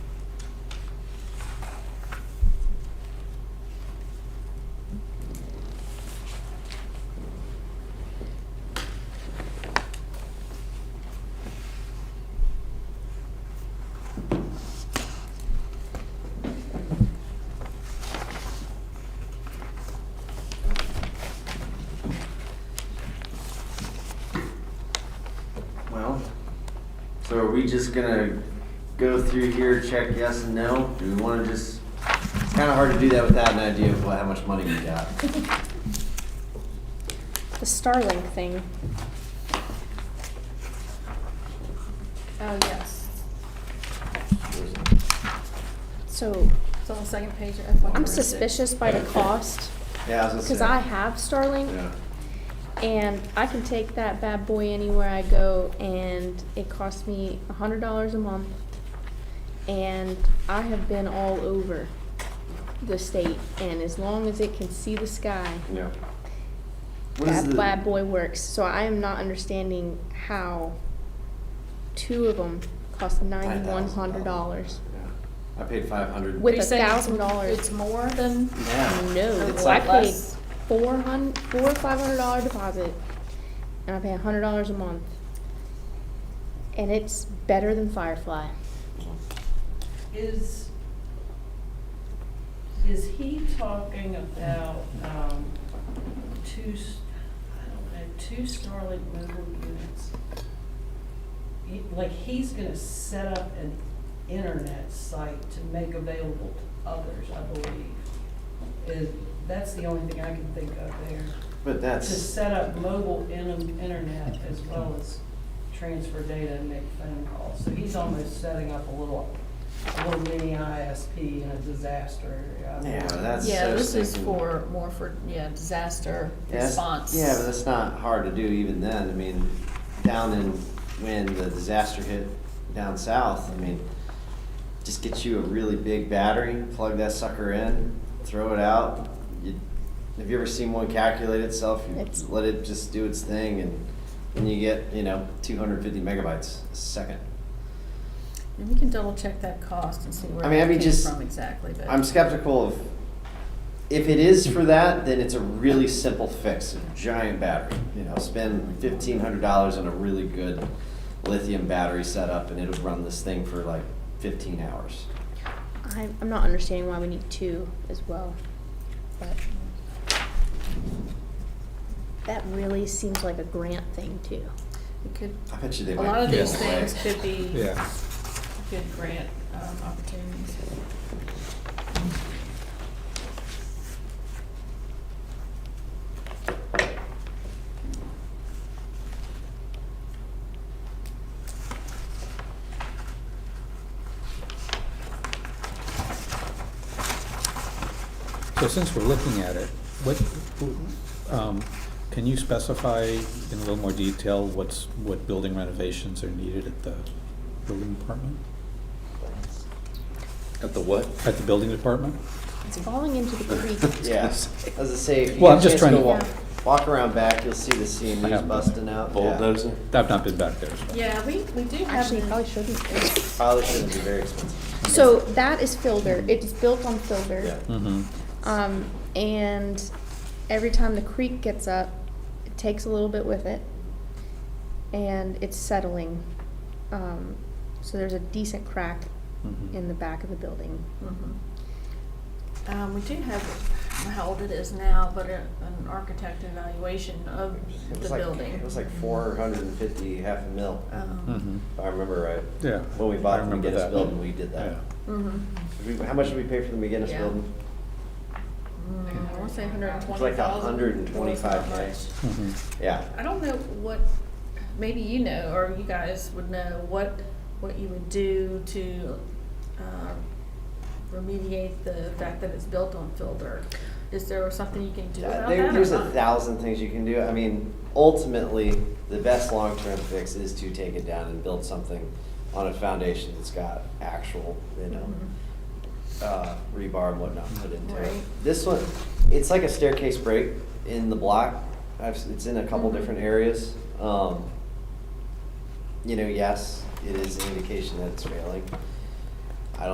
we just gonna go through here, check yes and no? Do we wanna just, it's kinda hard to do that without an idea of what, how much money we got. The Starlink thing. Oh, yes. So It's on the second page of FY. I'm suspicious by the cost Yeah, I was gonna say. because I have Starlink Yeah. and I can take that bad boy anywhere I go and it costs me a hundred dollars a month. And I have been all over the state and as long as it can see the sky, Yeah. What is that the- bad boy works. So I am not understanding how two of them cost ninety-one hundred dollars. Yeah. I paid five hundred. With Are you a saying it's- thousand dollars. It's more than, Yeah. No, It's well, I like paid less. four hun, four or five hundred dollar deposit, and I pay a hundred dollars a month. And it's better than Firefly. Is, is he talking about, um, two, s- I don't know, two Starlink mobile units? He- Like, he's gonna set up an internet site to make available to others, I believe. Is, that's the only thing I can think of there. But To that's, set up mobile in- internet as well as transfer data and make phone calls. So he's almost setting up a little, a little mini ISP in a disaster uh, area. yeah, that's. yeah, so this is sneaky. for, more for, yeah, disaster Yeah, that's- response. Yeah, but that's not hard to do even then. I mean, down in, when the disaster hit down south, I mean, just get you a really big battery, plug that sucker in, throw it out. You- Have you ever seen one calculate itself? You It's- let it just do its thing and then you get, you know, two hundred and fifty megabytes a second. And we can double check that cost and see where I mean, I that mean, came just- from exactly, but. I'm skeptical of, if it is for that, then it's a really simple fix, a giant battery. You know, spend fifteen hundred dollars on a really good lithium battery setup and it'll run this thing for like fifteen hours. I, I'm not understanding why we need two as well, but. That really seems like a grant thing too. It could, I bet you they a might. lot of give these it away. things could be Yeah. good grant, um, opportunities. So since we're looking at it, what, um, can you specify in a little more detail what's, what building renovations are needed at the building department? At the what? At the building department? It's falling into the creek. Yeah, as I say, if you get Well, I'm a just chance to trying go to- walk, walk around back, you'll see the I CMU's haven't been busting there. out. Yeah. Bulldozer? I've not been back there, so. Yeah, we, we do have. Actually, the- probably shouldn't. Probably shouldn't be very expensive. So that is Filbert. It is built on Filbert. Yeah. Mm-hmm, Um, and every time the creek gets up, it takes a little bit with it, and it's settling. Um, so there's a decent crack Mm-hmm. Mhm. in the back of the building. Mhm. Um, we do have, I don't know how old it is now, but a- an architect evaluation of It the was like, building. it was like four hundred and fifty, half a mil, Um, mm-hmm, if I remember right. yeah. When we I bought the remember McGinnis that. building, we did Yeah. that. mhm. Did we- How much did we pay for the McGinnis Yeah. building? Mm, I wanna say hundred and It's twenty like thousand. a hundred and twenty-five nights. Mhm. Yeah. I don't know what, maybe you know, or you guys would know, what, what you would do to, um, remediate the fact that it's built on fill dirt. Is there something you can do Yeah, about that or Uh, there- There's a not? thousand things you can do. I mean, ultimately, the best long-term fix is to take it down and build something on a foundation that's got actual, you know, uh, rebar and whatnot put into it. Mm-hmm. Right. This one, it's like a staircase break in the block. I've, s- it's in a couple Mhm. different areas. Um, you know, yes, it is an indication that it's failing.